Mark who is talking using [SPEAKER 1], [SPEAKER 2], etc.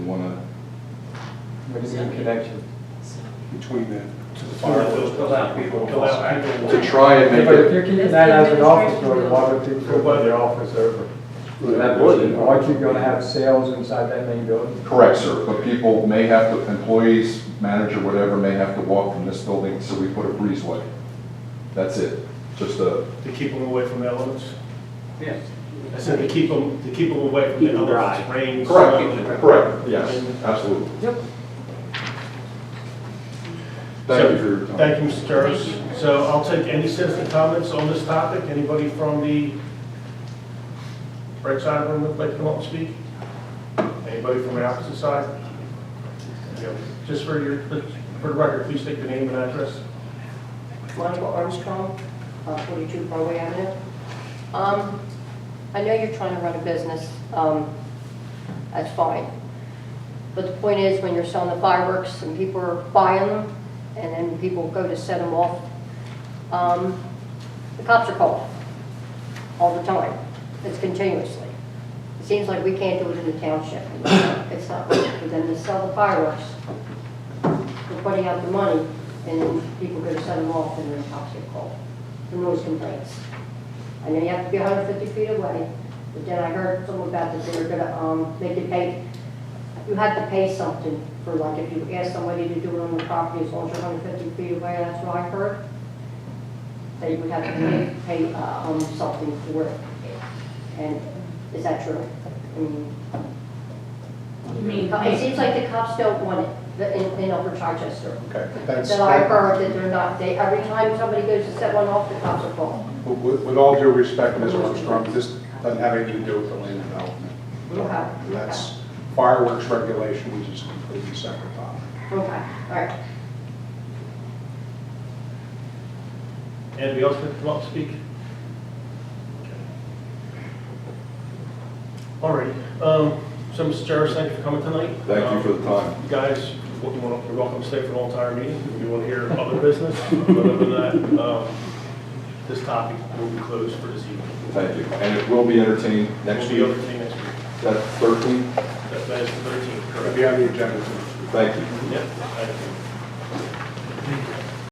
[SPEAKER 1] one other,
[SPEAKER 2] What is the connection?
[SPEAKER 1] between the, to the
[SPEAKER 3] Fill
[SPEAKER 1] fire.
[SPEAKER 3] out- fill out people. fill out people.
[SPEAKER 1] To try and
[SPEAKER 2] Yeah,
[SPEAKER 1] make
[SPEAKER 2] But if
[SPEAKER 1] it.
[SPEAKER 2] you're keeping that as an office door, why would
[SPEAKER 3] Go
[SPEAKER 2] people
[SPEAKER 3] by
[SPEAKER 2] go
[SPEAKER 3] their
[SPEAKER 2] there?
[SPEAKER 3] office over.
[SPEAKER 4] That would.
[SPEAKER 2] Aren't you gonna have sales inside that main building?
[SPEAKER 1] Correct, sir, but people may have to, employees, manager, whatever, may have to walk from this building, so we put a breezeway. That's it, just a,
[SPEAKER 3] To keep them away from elements?
[SPEAKER 4] Yes.
[SPEAKER 3] I said to keep them, to keep them away from
[SPEAKER 4] Keep
[SPEAKER 3] the
[SPEAKER 4] 'em dry.
[SPEAKER 3] elements, rain. snow.
[SPEAKER 1] correct, correct, yes, absolutely.
[SPEAKER 4] Yep.
[SPEAKER 1] Thank you for your time.
[SPEAKER 3] Thank you, Mr. Turris. So I'll take any citizen comments on this topic. Anybody from the right side of the room would like to come up and speak? Anybody from the opposite side? There you go. Just for your, for the record, please state your name and address.
[SPEAKER 5] Monica Armstrong, uh, 42 Broadway Avenue. Um, I know you're trying to run a business, um, that's fine. But the point is, when you're selling the fireworks and people are buying them, and then people go to set them off, um, the cops are called all the time. It's continuously. It seems like we can't do it in the township. It's not right for them to sell the fireworks we're putting out the money, and then people go to set them off, and then cops get called for noise complaints. I know you have to be 150 feet away, but then I heard something about that they were gonna, um, make you pay, you had to pay something for like, if you ask somebody to do it on the property, as long as you're 150 feet away, that's what I heard. That you would have to pay, pay, uh, um, something for it. And is that true? I mean,
[SPEAKER 6] You mean,
[SPEAKER 5] it seems like the cops don't want it, the- in, in Upper Chichester.
[SPEAKER 1] Okay, thanks.
[SPEAKER 5] That I heard that they're not, they, every time somebody goes to set one off, the cops are called.
[SPEAKER 7] But With with all due respect, Ms. Armstrong, this doesn't have anything to do with the land development.
[SPEAKER 5] Okay.
[SPEAKER 7] That's fireworks regulation, which is a completely separate topic.
[SPEAKER 5] Okay, all right.
[SPEAKER 3] Anybody else that come up to speak? All right, um, so Mr. Jarvis, thank you for coming tonight. Um,
[SPEAKER 1] Thank you for the time.
[SPEAKER 3] You guys, what you want, you're welcome to stay for the whole entire meeting, if you want to hear other business, but other than that, um, this topic will be closed for this evening.
[SPEAKER 1] Thank you, and it will be entertained next
[SPEAKER 3] We'll
[SPEAKER 1] week,
[SPEAKER 3] be over to you next week,
[SPEAKER 1] that's 13?
[SPEAKER 3] That- that is the thirteenth,
[SPEAKER 7] It'll
[SPEAKER 3] correct?
[SPEAKER 7] be on the agenda.
[SPEAKER 1] Thank you.
[SPEAKER 3] Yeah, thank you.